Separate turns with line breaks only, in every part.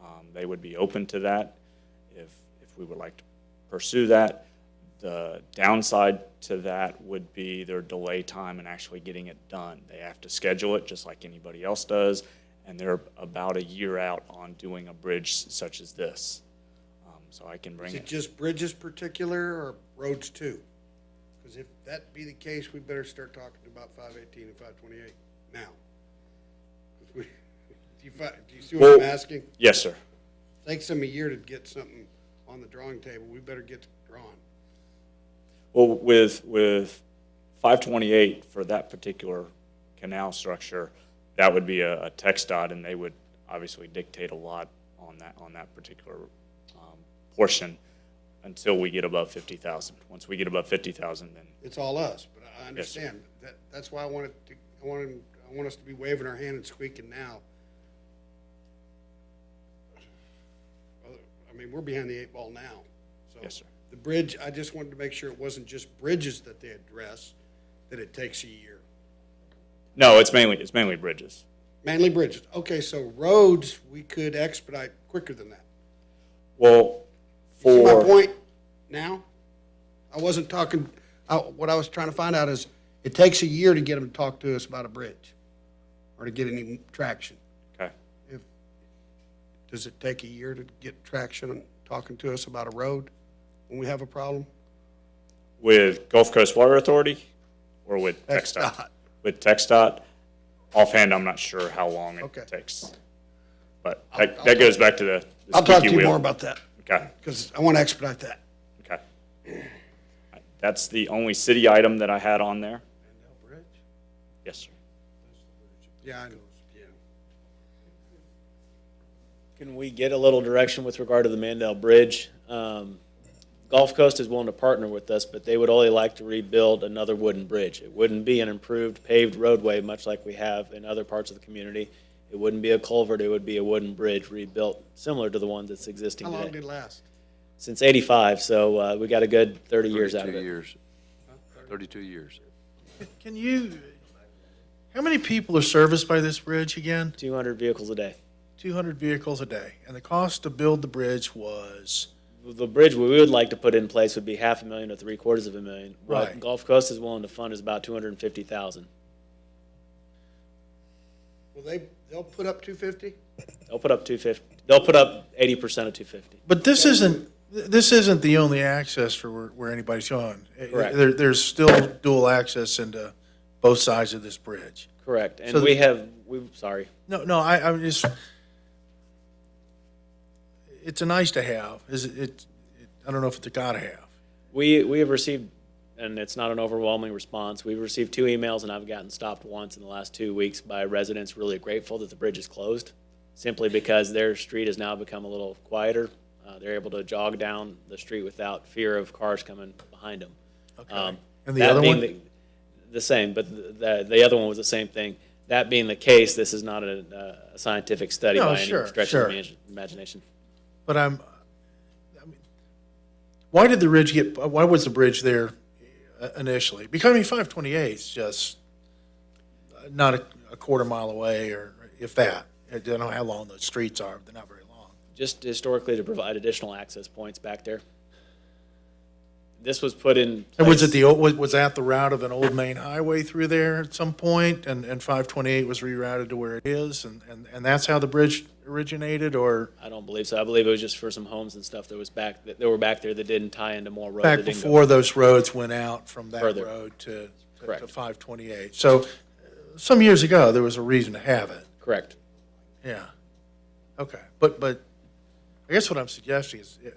Um, they would be open to that if, if we would like to pursue that. The downside to that would be their delay time in actually getting it done. They have to schedule it just like anybody else does, and they're about a year out on doing a bridge such as this. Um, So I can bring
Is it
it,
just bridges particular or roads too? Because if that be the case, we better start talking about five eighteen and five twenty-eight now. 'Cause we- Do you fi- do you see what I'm
Well-
asking?
yes, sir.
Takes them a year to get something on the drawing table, we better get drawn.
Well, with, with 528 for that particular canal structure, that would be a, a text dot, and they would obviously dictate a lot on that, on that particular um, portion until we get above 50,000. Once we get above 50,000, then,
It's all us, but I- I understand. That, that's why I wanted to, I wanted, I want us to be waving our hand and squeaking now. Well, I mean, we're behind the eight ball now, so.
Yes, sir.
The bridge, I just wanted to make sure it wasn't just bridges that they address, that it takes a year.
no, it's mainly, it's mainly bridges.
Mainly bridges. Okay, so roads, we could expedite quicker than that.
Well,
See my
for,
point now? I wasn't talking, I- what I was trying to find out is, it takes a year to get them to talk to us about a bridge or to get any traction.
okay.
If, does it take a year to get traction on talking to us about a road when we have a problem?
With Gulf Coast Water Authority or with
Text
TxDOT?
dot.
With TxDOT, offhand, I'm not sure how long
Okay.
it takes. But that, that goes back to the. the
I'll talk to
squeaky
you
wheel.
more about that,
Okay,
because I want to expedite that.
okay. That's the only city item that I had on there. Yes, sir.
Yeah, I know. Yeah.
Can we get a little direction with regard to the Mandel Bridge? Um, Gulf Coast is willing to partner with us, but they would only like to rebuild another wooden bridge. It wouldn't be an improved paved roadway, much like we have in other parts of the community. It wouldn't be a culvert, it would be a wooden bridge rebuilt, similar to the one that's existing
How long did
today.
it last?
Since eighty-five, so, uh, we got a good thirty years out of
32
it.
years. 32 years.
Can you, how many people are serviced by this bridge again?
Two hundred vehicles a day.
200 vehicles a day. And the cost to build the bridge was,
The bridge we would like to put in place would be half a million or three quarters of a million. What
Right.
Gulf Coast is willing to fund is about two hundred and fifty thousand.
Well, they, they'll put up two fifty?
They'll put up two fifty. They'll put up eighty percent of two fifty.
but this isn't, th- this isn't the only access for where, where anybody's going. Eh, eh,
Correct.
There, there's still dual access into both sides of this bridge.
Correct. And
So
we
the-
have we sorry.
No, no, I, I'm just, it's a nice to have. Is it, it- I don't know if it's a gotta have.
We we have received and it's not an overwhelming response. We've received two emails and I've gotten stopped once in the last two weeks by residents really grateful that the bridge is closed simply because their street has now become a little quieter. Uh, they're able to jog down the street without fear of cars coming behind them. Um,
And the
that
other
being
one?
The, the same, but the, the, the other one was the same thing. That being the case, this is not a, a scientific study
No,
by any
sure,
stretch
sure.
of the imagi- imagination.
But I'm, I mean, why did the ridge get, why was the bridge there uh, initially? Because I mean, 528 is just uh, not a, a quarter mile away or if that. I don't know how long those streets are, but they're not very long.
just historically to provide additional access points back there. This was put in.
And was it
place-
the, old- was, was that the route of an old main highway through there at some point and, and 528 was rerouted to where it is? And, and, and that's how the bridge originated or
I don't believe so. I believe it was just for some homes and stuff that was back, that that were back there that didn't tie into more road.
back
that didn't go-
before those roads went out from that
Further.
road to, to- to
Correct.
528. So uh, some years ago, there was a reason to have it,
Correct.
yeah. Okay, but, but I guess what I'm suggesting is uh,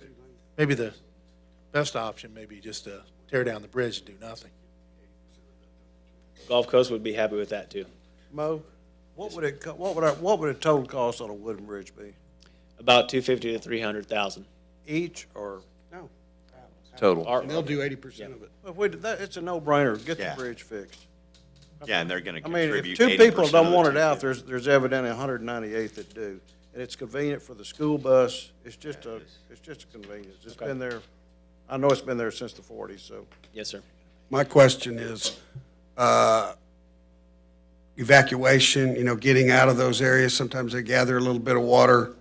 maybe the best option may be just to tear down the bridge and do nothing.
Gulf Coast would be happy with that too.
Mo, what would it, co- what would, our- what would a total cost on a wooden bridge be?
About two fifty to three hundred thousand.
Each or,
No,
Total.
they'll do eighty percent of it.
if we, that, it's a no-brainer, get the
Yeah.
bridge fixed.
Yeah, and they're gonna
I mean, if
contribute
two
eighty percent of
people don't
the
want it out,
250.
there's, there's evidently hundred and ninety-eight that do. And it's convenient for the school bus, it's just a, it's just a convenience, it's been there, I know it's been there since the forties, so.
Yes, sir.
My question is, uh, evacuation, you know, getting out of those areas, sometimes they gather a little bit of water.